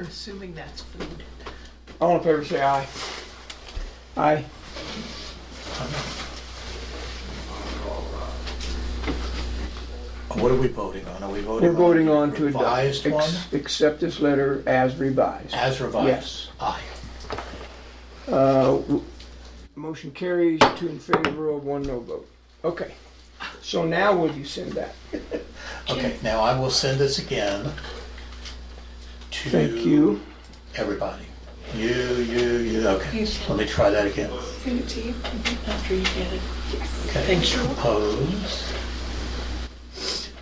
assuming that's food. All in favor, say aye. Aye. What are we voting on? Are we voting on? We're voting on the to Revised adopt, one, ex- accept this letter as revised. as revised? Yes. Aye. Uh, w- Motion carries, two in favor of, one no vote. Okay, so now will you send that? Okay, now I will send this again to. Thank you. Everybody. You, you, you, okay. Let me try that again. Send it to you after you get it. Okay. Thank you. Propose.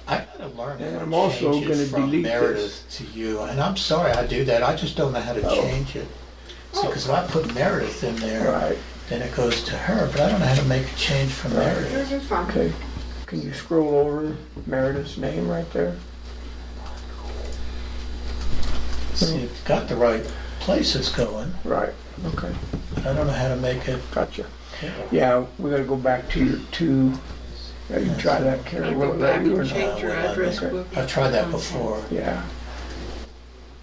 I gotta learn And how I'm to also change it gonna from delete Meredith to you, and I'm sorry I do that, I just don't know how to change it. Oh. See, because when I put Meredith in there, Oh. Right. then it goes to her, but I don't know how to make a change from Meredith. This is fine. Okay, can you scroll over Meredith's name right there? See, it's got the right place it's going, Right, okay, but I don't know how to make it. gotcha. Yeah, we gotta go back to your two, Yeah, you try that, Carrie, I'll will it go let back you or and not? change your Uh, well, address okay. book. I've tried that before. Yeah.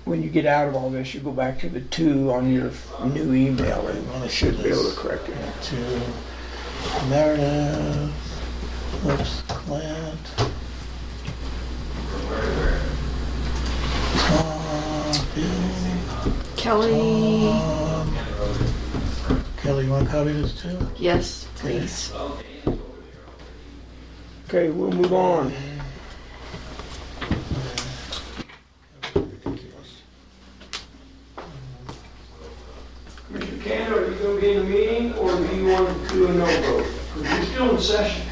When you get out of all this, you go back to the two on your new email We and wanna see should be able this. to correct it. to Meredith, whoops, Clint. Tom, Bill, Kelly, Tom. Kelly, you want to copy this too? yes, please. Okay, we'll move on. Mr. Canada, are you gonna be in the meeting, or do you want to do a no vote? Because you're still in session.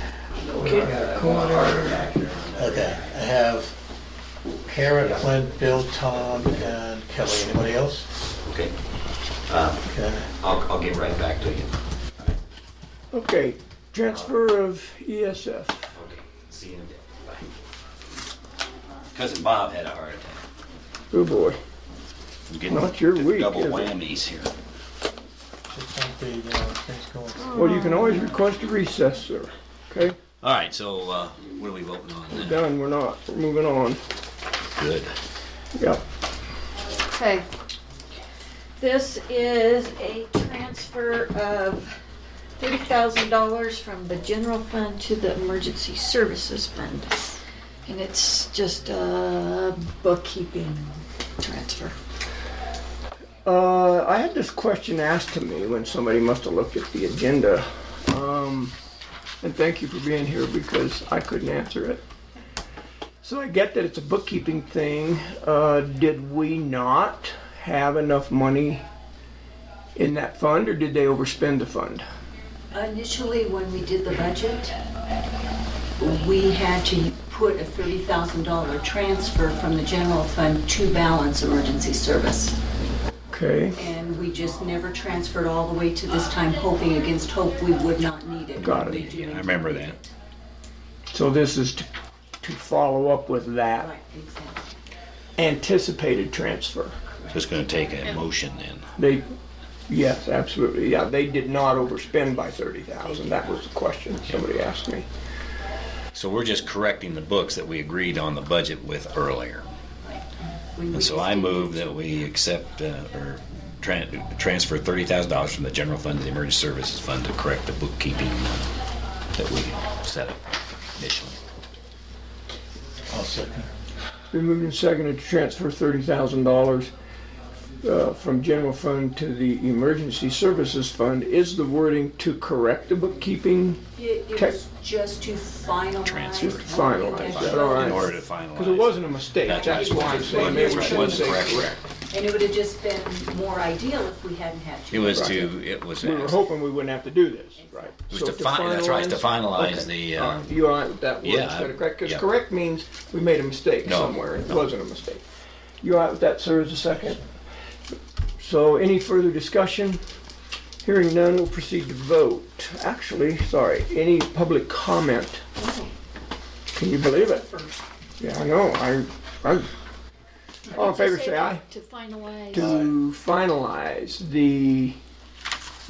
Okay, I have Kara, Clint, Bill, Tom, and Kelly. Anybody else? Okay, uh, Okay. I'll, I'll get right back to you. Okay, transfer of E ESF. Okay, see you in a bit, bye. Cousin Bob had a heart attack. Oh boy. I'm getting Not your the week, Double is it? whammies here. Just don't be, you know, things going. Well, you can always request a recess, sir. Okay, All right, so, uh, what are we voting on then? done, we're not, we're moving on. Good. Yep. Okay. This is a transfer of thirty thousand dollars from the general fund to the emergency services fund. And it's just a bookkeeping transfer. Uh, I had this question asked to me when somebody must have looked at the agenda. Um, and thank you for being here because I couldn't answer it. So I get that it's a bookkeeping thing. Uh, did we not have enough money in that fund or did they overspend the fund? Initially, when we did the budget, we had to put a $30,000 transfer from the general fund to balance emergency service. Okay, And we just never transferred all the way to this time, hoping against hope we would not need it. Got it. We Yeah, do I indeed remember need that. it. so this is to, to follow up with that Right, exactly. anticipated transfer. Just gonna take a motion then. They, yes, absolutely, yeah, they did not overspend by thirty thousand, that was the question somebody asked me. So we're just correcting the books that we agreed on the budget with earlier. When we And so just I did- move that we accept, uh, or tran- transfer thirty thousand dollars from the general fund to the emergency services fund to correct the bookkeeping uh, that we set up initially. I'll second. Been moved and seconded to transfer thirty thousand dollars uh, from general fund to the emergency services fund. Is the wording to correct the bookkeeping? It it Tech- was just to finalize. Transfer. Just finalize, what that's we all In right. order to finalize. Because it wasn't a mistake, That's that's right. why I'm saying maybe we That's right. shouldn't say Wasn't correct. correct. And it would have just been more ideal if we hadn't had to. It was to, it was, We were it hoping we wouldn't have to do this, right? was So to fin, that's right, to finalize Okay. the, All uh, right, You are, that word yeah, instead of correct, because yeah. correct means we made a mistake No, somewhere, it wasn't a mistake. You all right with that, sir, as a second? So any further discussion? Hearing none, we'll proceed to vote. Actually, sorry, any public comment? Can you believe it? Yeah, I know, I, I, all in favor, say aye. To finalize. To finalize the